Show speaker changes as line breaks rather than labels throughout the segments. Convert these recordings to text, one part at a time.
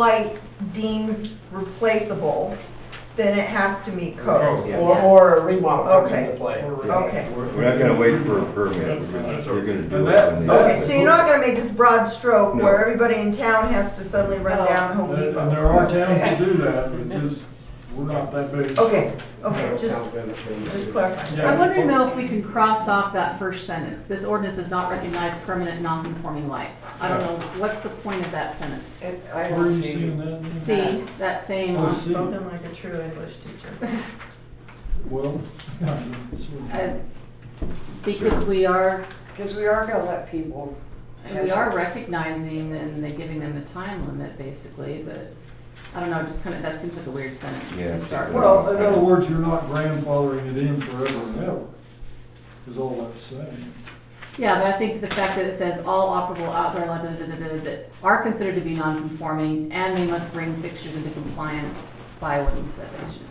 light deems replaceable, then it has to meet code.
Oh,
Or, or a remodel comes into
Okay.
play.
Okay.
We're not gonna wait for a permit, we're gonna, we're gonna do it when
Okay, so
they.
you're not gonna make this broad stroke
No.
where everybody in town has to suddenly run down Home
And and
Depot.
there are towns that do that, but just, we're not that big.
Okay, okay, just, just clarify.
Yeah.
I wonder now if we can cross off that first sentence, this ordinance does not recognize permanent non-conforming lights. I don't know, what's the point of that sentence?
It- I
Where you
don't
seeing
see,
that?
See, that same,
Oh, see.
spoken like a true English teacher.
Well.
uh, because we are,
Because we are gonna let people,
we are recognizing and they giving them the time limit basically, but I don't know, just kind of, that seems like a weird sentence
Yeah.
to start with.
Well, in other words, you're not grandfathering it in forever and ever, is all that's saying.
Yeah, but I think the fact that it says all operable outdoor light, da, da, da, da, that are considered to be non-conforming, and they must bring fixtures into compliance by ordinance definition.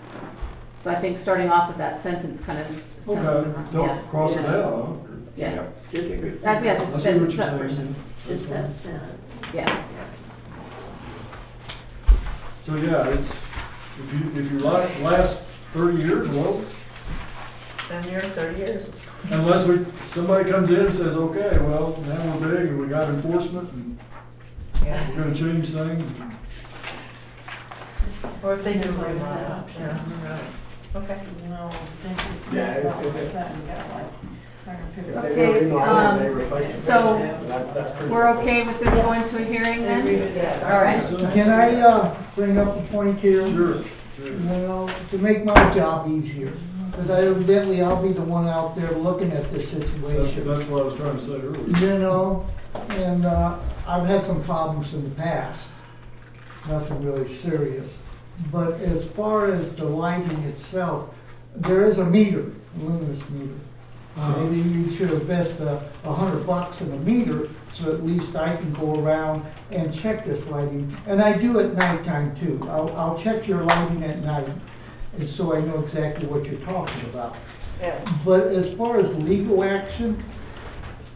So I think starting off with that sentence kind of. sums it
Okay,
up.
don't
Yeah,
cross it
yeah,
out,
Yeah,
Take it.
that, yeah,
huh? I
just
see what
that,
you're
that version,
saying.
Just that sentence.
yeah.
So, yeah, it's, if you, if you like, last thirty years, well,
Been here thirty years.
Unless we, somebody comes in and says, okay, well, now we're big and we got enforcement and
Yeah.
we're gonna change things.
Or if they do remodel, yeah, right. Okay.
no, thank you.
Yeah, if- if it-
Okay, um, so We're okay with this going to a hearing then? All right.
Can I, uh, bring up a point here?
Sure,
You
sure.
know, to make my job easier, because evidently I'll be the one out there looking at this
That's,
situation.
that's what I was trying to say earlier.
You know, and, uh, I've had some problems in the past, nothing really serious. But as far as the lighting itself, there is a meter, a luminous meter. Uh,
Uh,
Maybe you should invest a, a hundred bucks in a meter, so at least I can go around and check this lighting. And I do at nighttime too, I'll, I'll check your lighting at night, and so I know exactly what you're talking about. But as far as legal action,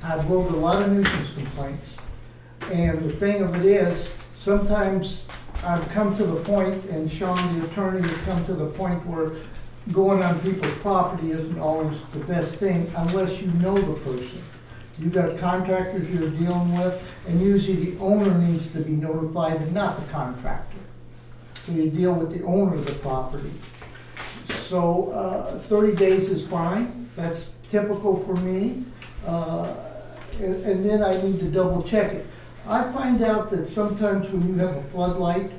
I've wrote a lot of nuisance complaints. And the thing of it is, sometimes I've come to the point, and Sean, the attorney, has come to the point where going on people's property isn't always the best thing unless you know the person. You've got contractors you're dealing with, and usually the owner needs to be notified and not the contractor. So you deal with the owner of the property. So, uh, thirty days is fine, that's typical for me, uh, and, and then I need to double check it. I find out that sometimes when you have a floodlight,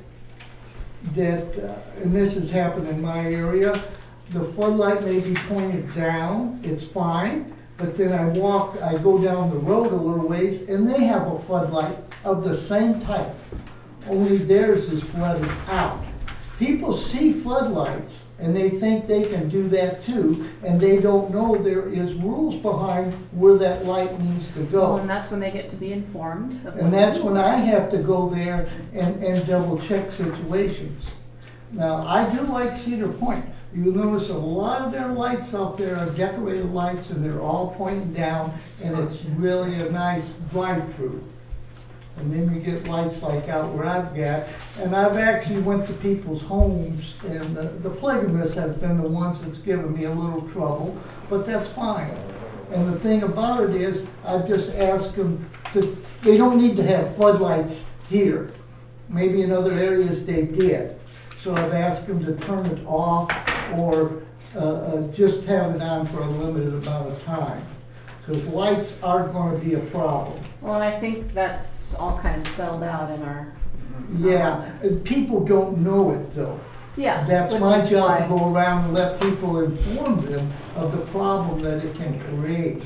that, uh, and this has happened in my area, the floodlight may be pointed down, it's fine, but then I walk, I go down the road a little ways, and they have a floodlight of the same type, only theirs is flooded out. People see floodlights, and they think they can do that too, and they don't know there is rules behind where that light needs to go.
Well, and that's when they get to be informed of. what-
And that's when I have to go there and, and double check situations. Now, I do like Cedar Point. You notice a lot of their lights out there are decorated lights and they're all pointing down and it's really a nice drive-through. And then we get lights like out where I've got, and I've actually went to people's homes and the, the polygamists have been the ones that's given me a little trouble, but that's fine. And the thing about it is, I've just asked them to, they don't need to have floodlights here. Maybe in other areas they did. So I've asked them to turn it off or, uh, uh, just have it on for a limited amount of time. Cause lights are gonna be a problem.
Well, I think that's all kind of spelled out in our,
Yeah, and people don't know it though.
yeah.
That's
which
my
is
job, to
why-
go around and let people inform them of the problem that it can create.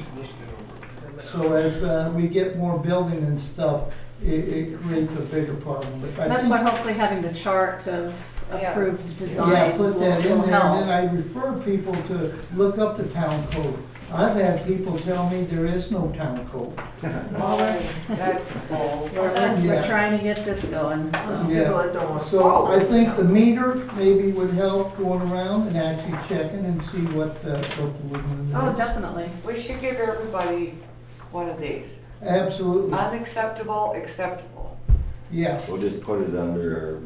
So as, uh, we get more building and stuff, it, it creates a bigger problem, but I
That's
think.
why hopefully having the chart of
Yeah.
approved
Yeah,
designs will
put that in
will
there,
help.
and then I refer people to look up the town code. I've had people tell me there is no town code.
that's all.
We're, we're- we're
Yeah.
trying to get this going, so.
Yeah.
People that don't wanna
So
follow
I
it.
think the meter maybe would help going around and actually checking and see what, uh, what the women.
Oh, definitely.
We should give everybody one of these,
Absolutely.
unacceptable, acceptable.
yes.
We'll just put it under